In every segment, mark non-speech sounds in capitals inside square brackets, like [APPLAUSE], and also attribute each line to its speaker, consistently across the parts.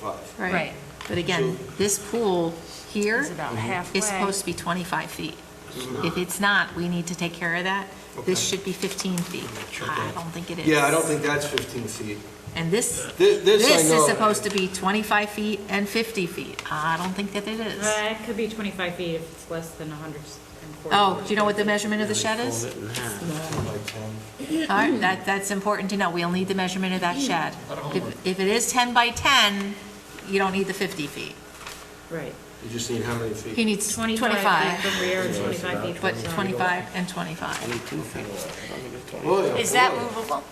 Speaker 1: 25.
Speaker 2: Right.
Speaker 3: But again, this pool here
Speaker 2: It's about
Speaker 1: Mm-hmm.
Speaker 3: is supposed
Speaker 2: halfway.
Speaker 3: to be 25 feet. If it's not, we need to take care of that. This
Speaker 1: Okay.
Speaker 3: should be 15 feet.
Speaker 4: check
Speaker 3: I
Speaker 4: it.
Speaker 3: don't think it is.
Speaker 1: Yeah, I don't think that's 15 feet.
Speaker 3: And this,
Speaker 1: Thi- This I
Speaker 3: this is
Speaker 1: know.
Speaker 3: supposed to be 25 feet and 50 feet. I don't think that it is.
Speaker 5: Uh, It could be 25 feet if it's less than 140.
Speaker 3: Oh, do you know what the measurement of the shed is?
Speaker 4: Fold it in half.
Speaker 1: 10 by 10.
Speaker 3: All right, that, that's important to know. We'll need the measurement of that shed. If, if it is 10 by 10, you don't need the 50 feet.
Speaker 5: Right.
Speaker 1: You just need how many feet?
Speaker 3: He needs
Speaker 5: 25 feet
Speaker 3: 25,
Speaker 5: from rear and 25 feet from
Speaker 3: but
Speaker 5: side.
Speaker 3: 25 and 25.
Speaker 4: Twenty-two feet. I don't think it's twenty.
Speaker 1: Well, yeah,
Speaker 2: Is that
Speaker 1: well,
Speaker 2: movable,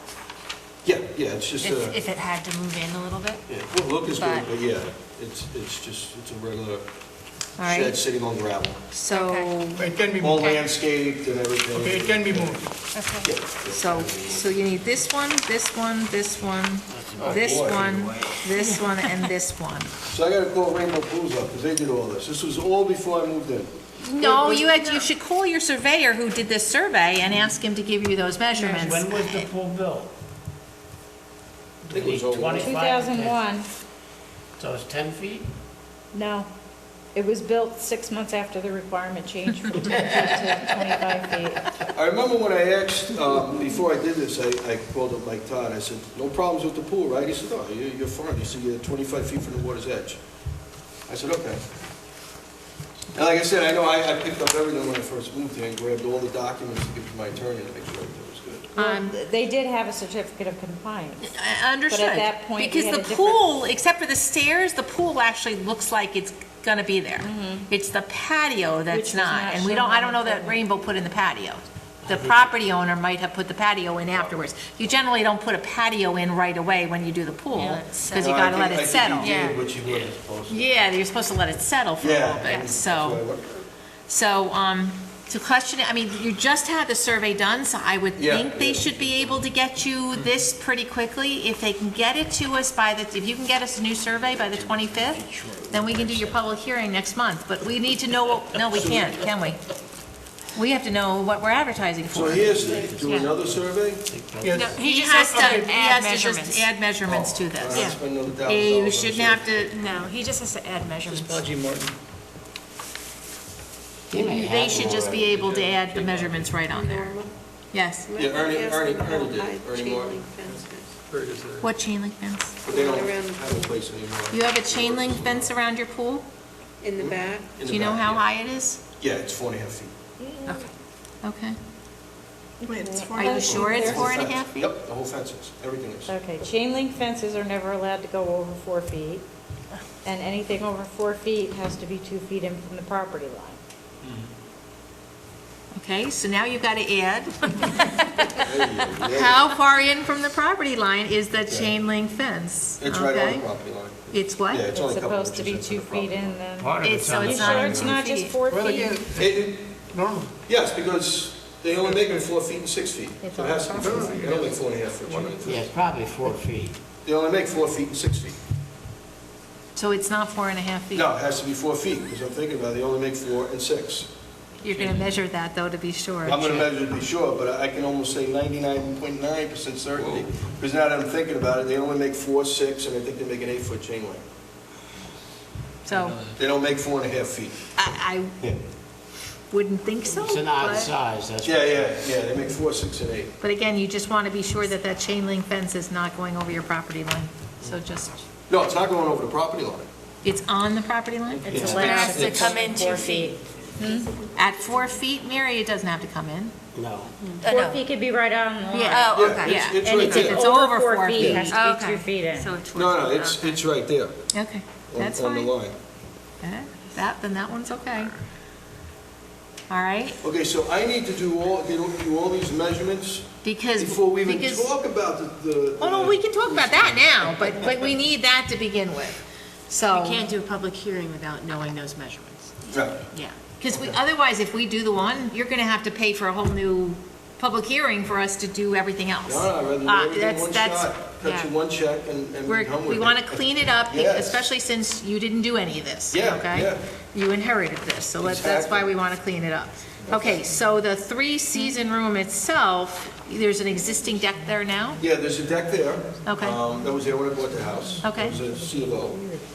Speaker 1: Yeah, yeah, it's just
Speaker 2: if,
Speaker 1: a,
Speaker 2: if it had to move in a little bit?
Speaker 1: yeah, well, look is good,
Speaker 2: but-
Speaker 1: but yeah, it's, it's just, it's a regular
Speaker 3: All right.
Speaker 1: shed sitting on gravel.
Speaker 3: So,
Speaker 6: It can be
Speaker 1: All
Speaker 6: moved.
Speaker 1: landscaped and
Speaker 6: Okay, it
Speaker 1: everything.
Speaker 6: can be moved.
Speaker 2: Okay.
Speaker 3: so, so you need this one, this one, this one, this one, this one, and this one.
Speaker 1: So I gotta call Rainbow Pools up, because they did all this. This was all before I moved in.
Speaker 3: No, you had, you should call your surveyor who did this survey and ask him to give you those measurements.
Speaker 4: When was the pool built?
Speaker 1: I think it was over-
Speaker 4: 25
Speaker 5: 2001,
Speaker 4: So it's ten feet?
Speaker 5: no. It was built six months after the requirement changed from 10 feet to
Speaker 3: [LAUGHS]
Speaker 5: 25 feet.
Speaker 1: I remember when I asked, um, before I did this, I, I called up Mike Todd, I said, no problems with the pool, right? He said, no, you, you're fine, he said, you're twenty-five feet from the water's edge. I said, okay. And like I said, I know I, I picked up everything when I first moved here, and grabbed all the documents to give to my attorney to make sure everything was good.
Speaker 3: Um,
Speaker 5: They did have a certificate of compliance.
Speaker 3: I Understood.
Speaker 5: that point, we
Speaker 3: Because
Speaker 5: had
Speaker 3: the
Speaker 5: a different-
Speaker 3: pool, except for the stairs, the pool actually looks like it's gonna be there. It's the patio that's
Speaker 5: was
Speaker 3: not,
Speaker 5: Mm-hmm. not
Speaker 3: and we
Speaker 5: shown
Speaker 3: don't, I
Speaker 5: on
Speaker 3: don't
Speaker 5: the
Speaker 3: know that
Speaker 5: plan.
Speaker 3: Rainbow put in the patio. The property owner might have put the patio in afterwards. You generally don't put a patio in right away when you do the pool,
Speaker 2: Yeah, it's
Speaker 3: because you gotta let it settle.
Speaker 2: did
Speaker 1: I think you did what you were supposed to.
Speaker 3: Yeah, you're supposed to let it settle for a
Speaker 1: Yeah.
Speaker 3: little bit,
Speaker 1: That's
Speaker 3: so.
Speaker 1: what I wondered.
Speaker 3: So, um, to question it, I mean, you just had the survey done, so I would
Speaker 1: Yeah,
Speaker 3: think they
Speaker 1: yeah.
Speaker 3: should be able to get you this pretty quickly. If they can get it to us by the, if you can get us a new survey by the 25th, then we can do your public hearing next month. But we need to know, what- no, we can't, can we? We have to know what we're advertising
Speaker 1: So
Speaker 3: for.
Speaker 1: here's, the- do another survey?
Speaker 2: No,
Speaker 6: Yes.
Speaker 2: He
Speaker 3: He
Speaker 2: just
Speaker 3: has
Speaker 2: has
Speaker 3: to,
Speaker 2: to
Speaker 3: he has
Speaker 2: add
Speaker 3: to just
Speaker 2: measurements.
Speaker 3: add measurements to this.
Speaker 1: I'll spend another thousand
Speaker 3: Eh, You
Speaker 1: dollars on
Speaker 3: shouldn't
Speaker 1: this.
Speaker 3: have to,
Speaker 2: No, he just has to add measurements.
Speaker 4: Martin.
Speaker 3: they should just be able to add the measurements right on there. Yes.
Speaker 1: Yeah, Ernie- Ernie- Ernie did, Ernie Martin.
Speaker 3: What chain link fence?
Speaker 1: But they don't have a place anymore.
Speaker 3: You have a chain link fence around your pool?
Speaker 7: In
Speaker 1: Hmm?
Speaker 7: the back?
Speaker 1: In the
Speaker 3: Do you know
Speaker 1: back,
Speaker 3: how
Speaker 1: yeah.
Speaker 3: high it is?
Speaker 1: Yeah, it's four and a half feet.
Speaker 3: Okay.
Speaker 7: Wait, it's four
Speaker 3: Are you sure it's
Speaker 1: The whole
Speaker 3: four and a
Speaker 1: fence.
Speaker 3: half feet?
Speaker 1: Yep, the whole fence is, everything is.
Speaker 5: Okay, chain link fences are never allowed to go over four feet, and anything over four feet has to be two feet in from the property line.
Speaker 3: Okay, so now you've got
Speaker 1: [LAUGHS]
Speaker 3: to add,
Speaker 1: There
Speaker 5: [LAUGHS]
Speaker 1: you go. Yeah.
Speaker 3: how far in from the property line is the chain link fence?
Speaker 1: It's right on
Speaker 3: Okay.
Speaker 1: the property line.
Speaker 3: It's
Speaker 1: Yeah,
Speaker 3: what?
Speaker 1: it's only
Speaker 5: It's
Speaker 1: a couple
Speaker 5: supposed to be
Speaker 1: inches in
Speaker 5: two
Speaker 1: from the
Speaker 5: feet in
Speaker 1: property
Speaker 5: the.
Speaker 4: Part of
Speaker 3: It's-
Speaker 4: it's
Speaker 3: so
Speaker 4: on the
Speaker 5: You
Speaker 3: it's not
Speaker 5: sure
Speaker 4: side.
Speaker 5: it's
Speaker 3: two
Speaker 5: not just
Speaker 3: feet.
Speaker 5: four
Speaker 6: Well,
Speaker 5: feet?
Speaker 6: again,
Speaker 1: line. It- it-
Speaker 6: normal.
Speaker 1: Yes, because they only make it four feet and six feet.
Speaker 5: It's
Speaker 1: So it has to be four feet. They don't make four and a half foot chains.
Speaker 4: Yeah, it's probably four feet.
Speaker 1: They only make four feet and six feet.
Speaker 3: So it's not four and a half feet?
Speaker 1: No, it has to be four feet, because I'm thinking about it, they only make four and six.
Speaker 3: You're going to measure that, though, to be sure.
Speaker 1: I'm gonna measure to be sure, but I can almost say ninety-nine point nine percent certainty, because now that I'm thinking about it, they only make four, six, and I think they make an eight-foot chain link.
Speaker 3: So
Speaker 1: They don't make four and a half feet.
Speaker 3: I, I
Speaker 1: Yeah.
Speaker 3: wouldn't think so,
Speaker 4: It's an odd
Speaker 3: but,
Speaker 4: size, that's.
Speaker 1: Yeah, yeah, yeah, they make four, six, and eight.
Speaker 3: but again, you just want to be sure that that chain link fence is not going over your property line. So just,
Speaker 1: No, it's not going over the property line.
Speaker 3: it's on the property line?
Speaker 5: It's
Speaker 2: It
Speaker 5: allowed
Speaker 2: has to
Speaker 5: to
Speaker 2: come in two
Speaker 5: four
Speaker 2: feet.
Speaker 5: feet.
Speaker 3: At four feet, Mary, it doesn't have to come in.
Speaker 4: No.
Speaker 2: Uh,
Speaker 5: Four
Speaker 2: no.
Speaker 5: feet could be right on the line.
Speaker 2: Yeah. Oh,
Speaker 1: Yeah,
Speaker 2: okay.
Speaker 1: it's-
Speaker 3: Yeah.
Speaker 1: it's
Speaker 5: And
Speaker 1: right
Speaker 5: if
Speaker 1: there.
Speaker 5: it's over four feet, it has to be
Speaker 2: Okay.
Speaker 5: two feet in.
Speaker 2: So it's
Speaker 1: No,
Speaker 2: worth
Speaker 1: no,
Speaker 2: it.
Speaker 1: it's,
Speaker 2: Okay.
Speaker 1: it's right there,
Speaker 3: Okay,
Speaker 1: on,
Speaker 3: that's
Speaker 1: on the
Speaker 3: fine.
Speaker 1: line.
Speaker 3: Okay, That, then that one's okay. All right,
Speaker 1: Okay, so I need to do all, you know, do all these measurements
Speaker 3: because.
Speaker 1: before we even
Speaker 3: because-
Speaker 1: talk about the, the.
Speaker 3: Oh, no, we can talk about that now, but, but we need that to begin with, so.
Speaker 2: You can't do a public hearing without knowing those measurements.
Speaker 1: Right.
Speaker 2: Yeah.
Speaker 3: Because we, otherwise, if we do the one, you're gonna have to pay for a whole new public hearing for us to do everything else.
Speaker 1: No, no, I'd rather do
Speaker 3: Uh,
Speaker 1: everything in
Speaker 3: that's-
Speaker 1: one
Speaker 3: that's-
Speaker 1: shot, cut you
Speaker 3: yeah.
Speaker 1: one check and, and be
Speaker 3: We're,
Speaker 1: done with it.
Speaker 3: we wanna clean it up,
Speaker 1: Yes.
Speaker 3: especially since you didn't do any of this,
Speaker 1: Yeah,
Speaker 3: okay?
Speaker 1: yeah.
Speaker 3: You inherited this, so let's, that's why
Speaker 1: Exactly.
Speaker 3: we wanna clean it up. Okay, so the three-season room itself, there's an existing deck there now?
Speaker 1: Yeah, there's a deck there.
Speaker 3: Okay.
Speaker 1: um, That was there when I bought the house.
Speaker 3: Okay.
Speaker 1: It was a CLO.